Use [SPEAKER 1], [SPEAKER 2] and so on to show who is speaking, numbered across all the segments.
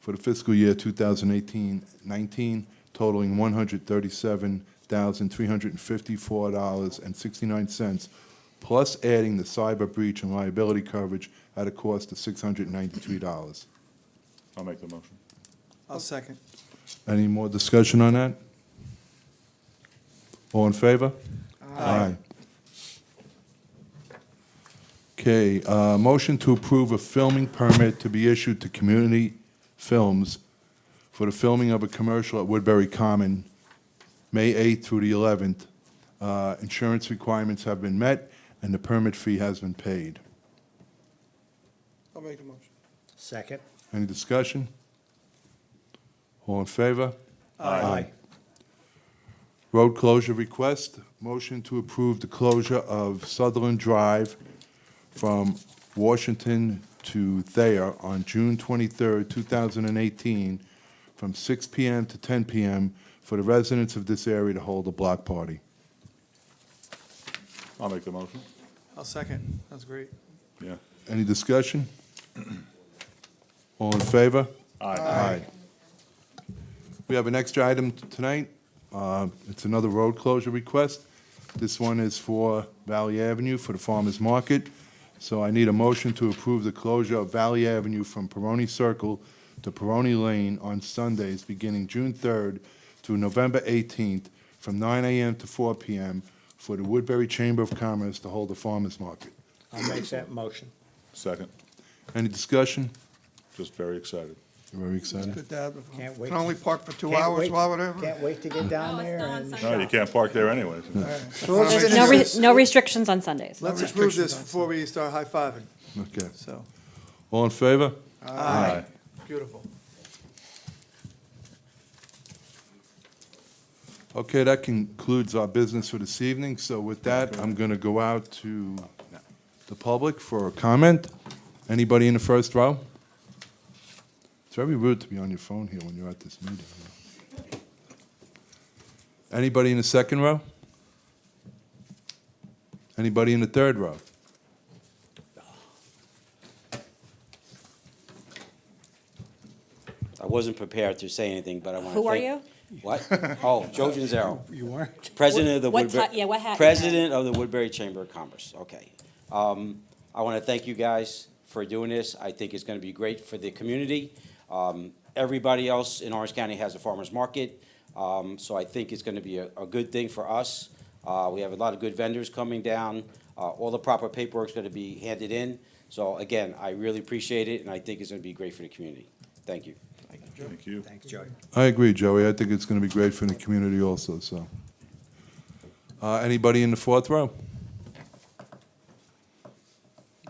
[SPEAKER 1] for the fiscal year 2018-19 totaling $137,354.69, plus adding the cyber breach and liability coverage at a cost of $693.
[SPEAKER 2] I'll make the motion.
[SPEAKER 3] I'll second.
[SPEAKER 1] Any more discussion on that? All in favor? Aye. Okay, uh, motion to approve a filming permit to be issued to Community Films for the filming of a commercial at Woodbury Common, May 8th through the 11th. Uh, Insurance requirements have been met, and the permit fee has been paid.
[SPEAKER 3] I'll make the motion.
[SPEAKER 4] Second.
[SPEAKER 1] Any discussion? All in favor?
[SPEAKER 4] Aye.
[SPEAKER 1] Road closure request, motion to approve the closure of Sutherland Drive from Washington to Thayer on June 23rd, 2018, from 6 PM to 10 PM for the residents of this area to hold a block party.
[SPEAKER 2] I'll make the motion.
[SPEAKER 3] I'll second. That's great.
[SPEAKER 2] Yeah.
[SPEAKER 1] Any discussion? All in favor?
[SPEAKER 2] Aye.
[SPEAKER 1] Aye. We have an extra item t- tonight. Uh, It's another road closure request. This one is for Valley Avenue for the farmer's market. So I need a motion to approve the closure of Valley Avenue from Peroni Circle to Peroni Lane on Sundays beginning June 3rd through November 18th from 9 a.m. to 4 p.m. for the Woodbury Chamber of Commerce to hold a farmer's market.
[SPEAKER 4] I'll make that motion.
[SPEAKER 2] Second.
[SPEAKER 1] Any discussion?
[SPEAKER 2] Just very excited.
[SPEAKER 1] Very excited.
[SPEAKER 3] Good dad.
[SPEAKER 4] Can't wait
[SPEAKER 3] Can only
[SPEAKER 4] to-
[SPEAKER 3] park for two
[SPEAKER 4] Can't
[SPEAKER 3] hours
[SPEAKER 4] wait-
[SPEAKER 3] while whatever.
[SPEAKER 4] Can't wait to get down
[SPEAKER 5] No, it's
[SPEAKER 4] there
[SPEAKER 5] still on
[SPEAKER 4] and.
[SPEAKER 5] Sunday.
[SPEAKER 2] No, you can't park there anyways.
[SPEAKER 5] There's no, re- no restrictions on Sundays.
[SPEAKER 3] Let's approve this before we start high-fiving,
[SPEAKER 1] Okay.
[SPEAKER 3] so.
[SPEAKER 1] All in favor?
[SPEAKER 2] Aye.
[SPEAKER 3] Beautiful.
[SPEAKER 1] Okay, that concludes our business for this evening, so with that, I'm going to go out to the public for a comment. Anybody in the first row? It's very rude to be on your phone here when you're at this meeting. you know. Anybody in the second row? Anybody in the third row?
[SPEAKER 6] I wasn't prepared to say anything, but I want to.
[SPEAKER 5] Who are you?
[SPEAKER 6] What? Oh, Joe Genzero,
[SPEAKER 4] You weren't?
[SPEAKER 6] President of the
[SPEAKER 5] What
[SPEAKER 6] Woodbury.
[SPEAKER 5] ti- yeah, what hat you had.
[SPEAKER 6] President of the Woodbury Chamber of Commerce. Okay. Um, I want to thank you guys for doing this. I think it's going to be great for the community. Um, everybody else in Orange County has a farmers market, um, so I think it's going to be a, a good thing for us. Uh, we have a lot of good vendors coming down. Uh, all the proper paperwork's going to be handed in. So again, I really appreciate it, and I think it's going to be great for the community. Thank you.
[SPEAKER 2] Thank you.
[SPEAKER 4] Thanks, Joey.
[SPEAKER 1] I agree, Joey, I think it's going to be great for the community also, so. Uh, Anybody in the fourth row?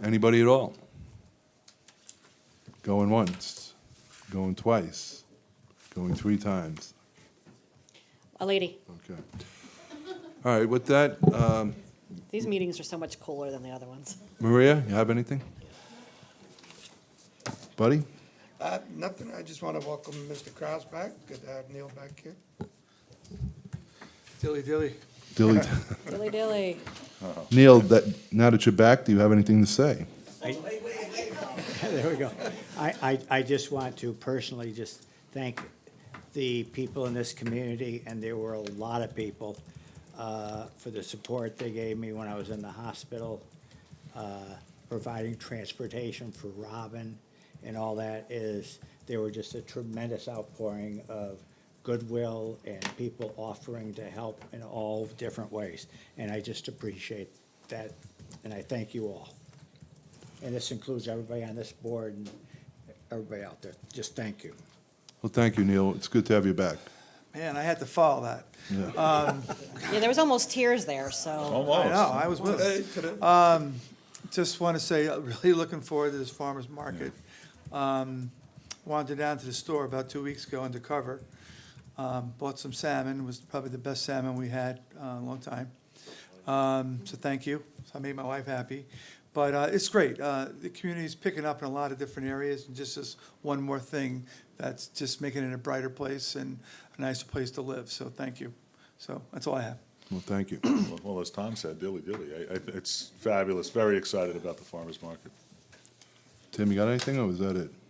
[SPEAKER 1] Anybody at all? Going once, going twice, going three times,
[SPEAKER 5] A lady,
[SPEAKER 1] okay. All right, with that, um,
[SPEAKER 5] these meetings are so much cooler than the other ones.
[SPEAKER 1] Maria, you have anything? Buddy?
[SPEAKER 7] Uh, Nothing, I just want to welcome Mr. Kraus back, good to have Neil back here.
[SPEAKER 3] Dilly dilly.
[SPEAKER 1] Dilly,
[SPEAKER 5] Dilly dilly.
[SPEAKER 1] Neil, that, now that you're back, do you have anything to say?
[SPEAKER 4] There we go. I, I, I just want to personally just thank the people in this community, and there were a lot of people, uh, for the support they gave me when I was in the hospital, uh, providing transportation for Robin and all that is, there were just a tremendous outpouring of goodwill and people offering to help in all different ways. And I just appreciate that, and I thank you all. And this includes everybody on this board and everybody out there. Just thank you.
[SPEAKER 1] Well, thank you, Neil, it's good to have you back.
[SPEAKER 3] Man, I had to follow that.
[SPEAKER 1] Yeah.
[SPEAKER 5] Yeah, there was almost tears there,
[SPEAKER 2] Oh.
[SPEAKER 5] so.
[SPEAKER 3] I know,
[SPEAKER 2] Almost.
[SPEAKER 3] I was with it. Just want to say, uh, really looking forward to this farmer's market. Um, Wandered down to the store about two weeks ago undercover, um, bought some salmon, was probably the best salmon we had uh, in a long time. Um, So thank you, So I made my wife happy. But uh, it's great, Uh, the community's picking up in a lot of different areas, and just as one more thing that's just making it a brighter place and a nicer place to live, so thank you. So that's all I have.
[SPEAKER 1] Well, thank you.
[SPEAKER 2] Well, as Tom said, dilly dilly. I, I, it's fabulous. Very excited about the farmer's market.
[SPEAKER 1] Tim, you got anything, or was that it?